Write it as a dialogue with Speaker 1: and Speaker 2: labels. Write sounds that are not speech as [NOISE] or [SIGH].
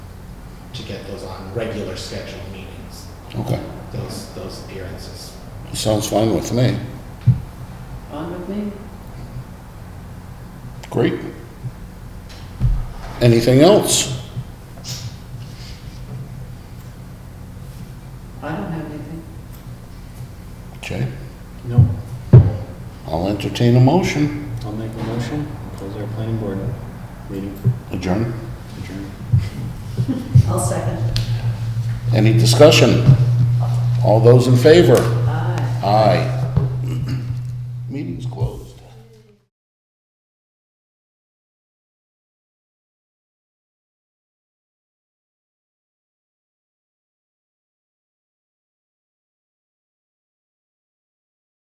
Speaker 1: to get those on regular scheduled meetings,
Speaker 2: Okay,
Speaker 1: those, those appearances.
Speaker 2: sounds fine with me.
Speaker 3: On with me?
Speaker 2: Great. Anything else?
Speaker 3: I don't have anything.
Speaker 2: Okay,
Speaker 4: No,
Speaker 2: I'll entertain a motion.
Speaker 4: I'll make a motion, close our planning board meeting,
Speaker 2: Adjourn.
Speaker 4: adjourn.
Speaker 3: I'll second.
Speaker 2: Any discussion? All those in favor?
Speaker 3: Aye.
Speaker 2: Aye. [CLEARS THROAT]